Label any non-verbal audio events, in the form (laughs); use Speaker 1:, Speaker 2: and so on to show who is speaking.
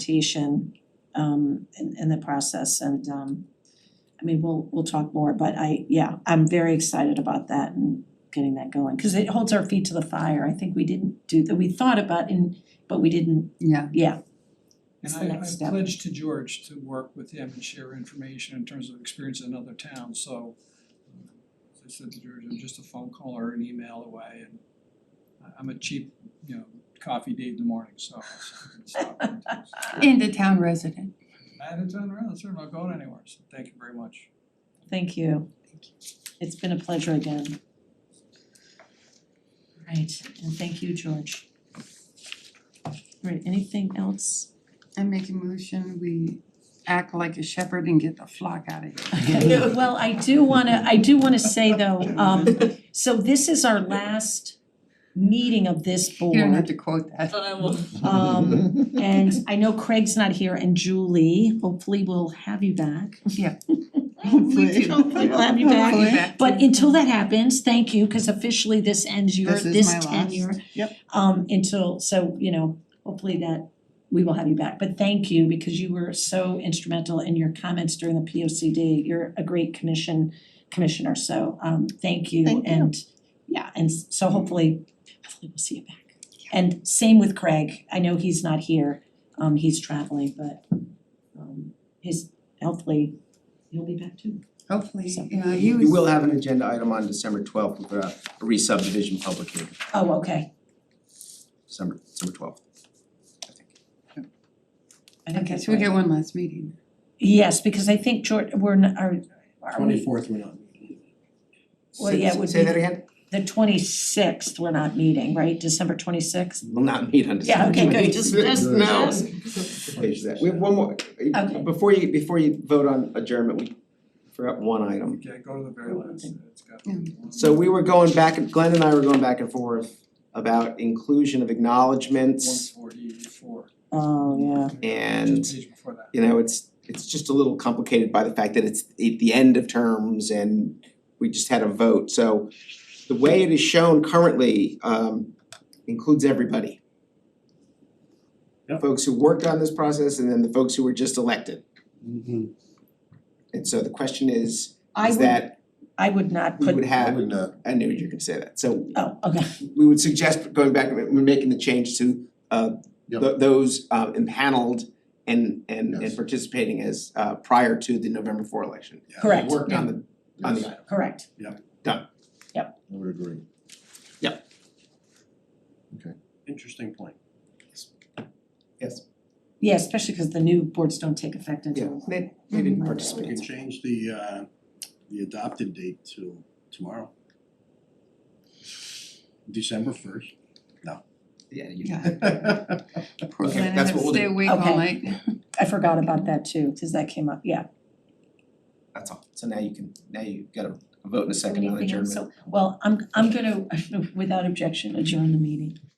Speaker 1: implementation um in in the process and um I mean, we'll we'll talk more, but I, yeah, I'm very excited about that and getting that going, cause it holds our feet to the fire. I think we didn't do that, we thought about and but we didn't,
Speaker 2: Yeah,
Speaker 1: yeah, It's
Speaker 3: And
Speaker 1: the next
Speaker 3: I I
Speaker 1: step.
Speaker 3: pledged to George to work with him and share information in terms of experience in other towns, so um, as I said to George, I'm just a phone call or an email away and I- I'm a cheap, you know, coffee date in the morning, so I can stop and
Speaker 2: and the town resident.
Speaker 3: I had to turn around, sir, I'm not going anywhere, so thank you very much.
Speaker 1: thank you. It's been a pleasure again. Right, and thank you, George. Right, anything else?
Speaker 2: I make a motion, we act like a shepherd and get the flock out of here.
Speaker 1: (laughs) Well, I do wanna, I do wanna say though, um so this is our last meeting of this board.
Speaker 2: You don't have to quote that.
Speaker 4: But I will.
Speaker 1: Um and I know Craig's not here and Julie, hopefully we'll have you back.
Speaker 2: Yeah.
Speaker 1: Hopefully, hopefully we'll have you back.
Speaker 2: (laughs) Hopefully.
Speaker 1: But until that happens, thank you, cause officially this ends your,
Speaker 2: Mm-hmm. This is
Speaker 1: this
Speaker 2: my last.
Speaker 1: tenure.
Speaker 2: Yep.
Speaker 1: Um until, so you know, hopefully that we will have you back, but thank you because you were so instrumental in your comments during the P O C D. You're a great commission commissioner, so um thank you
Speaker 5: Thank you.
Speaker 1: and yeah, and s- so hopefully, hopefully we'll see you back. And same with Craig, I know he's not here, um he's traveling, but um his hopefully he'll be back too.
Speaker 2: Hopefully, yeah, he was.
Speaker 6: We will have an agenda item on December twelfth with a a re-subdivision public hearing,
Speaker 1: Oh, okay,
Speaker 6: December, December twelfth.
Speaker 1: I think
Speaker 2: Okay,
Speaker 1: that's
Speaker 2: so we
Speaker 1: right.
Speaker 2: get one last meeting.
Speaker 1: Yes, because I think George, we're not, are are we,
Speaker 6: fourth, we're not meeting.
Speaker 1: Well, yeah, it would
Speaker 6: Say
Speaker 1: be-
Speaker 6: that again?
Speaker 1: the twenty sixth, we're not meeting, right, December twenty sixth?
Speaker 6: We'll not meet on
Speaker 1: Yeah,
Speaker 6: December
Speaker 1: okay,
Speaker 6: twelfth.
Speaker 1: good, just just
Speaker 6: (laughs) No.
Speaker 1: just-
Speaker 6: Page that, we have one more,
Speaker 1: Okay.
Speaker 6: before you, before you vote on adjournment, we forgot one item.
Speaker 3: Okay, go to the very last, it's got.
Speaker 6: So we were going back, Glenn and I were going back and forth about inclusion of
Speaker 3: One
Speaker 6: acknowledgements
Speaker 3: forty four.
Speaker 1: Oh, yeah.
Speaker 6: and
Speaker 3: Just page before that.
Speaker 6: you know, it's it's just a little complicated by the fact that it's at the end of terms and we just had a vote, so the way it is shown currently um includes everybody. Folks who worked on this process and then the folks who were just elected.
Speaker 1: Mm-hmm.
Speaker 6: And so the question is,
Speaker 1: I
Speaker 6: is
Speaker 1: would,
Speaker 6: that
Speaker 1: I would not
Speaker 6: we
Speaker 1: put,
Speaker 6: would have,
Speaker 7: would not.
Speaker 6: I knew you were gonna say that, so
Speaker 1: oh, okay,
Speaker 6: we would suggest going back and making the change to uh th- those uh impaneled and and and
Speaker 7: Yes.
Speaker 6: participating as uh prior to the November four election.
Speaker 1: Correct.
Speaker 6: Worked on the on the
Speaker 7: Yes,
Speaker 6: item.
Speaker 1: correct.
Speaker 7: I would agree.
Speaker 8: Interesting point.
Speaker 6: Yes.
Speaker 1: Yeah, especially because the new boards don't take effect
Speaker 6: Yeah, Mm-hmm.
Speaker 1: until,
Speaker 6: they they didn't
Speaker 8: We
Speaker 6: participate.
Speaker 8: can change the uh the adopted date to tomorrow. December first.
Speaker 6: Yeah, you
Speaker 2: Yeah,
Speaker 8: (laughs)
Speaker 2: poor
Speaker 6: Okay,
Speaker 2: Glenn, I had
Speaker 6: that's
Speaker 2: to
Speaker 6: what we'll
Speaker 2: stay
Speaker 6: do.
Speaker 2: awake all
Speaker 1: Okay.
Speaker 2: night.
Speaker 1: I forgot about that too, because that came up, yeah.
Speaker 6: that's all. So now you can, now you got a vote in a second on
Speaker 1: Anything else?
Speaker 6: adjournment.
Speaker 1: (laughs) So, well, I'm I'm gonna, without objection, adjourn the meeting.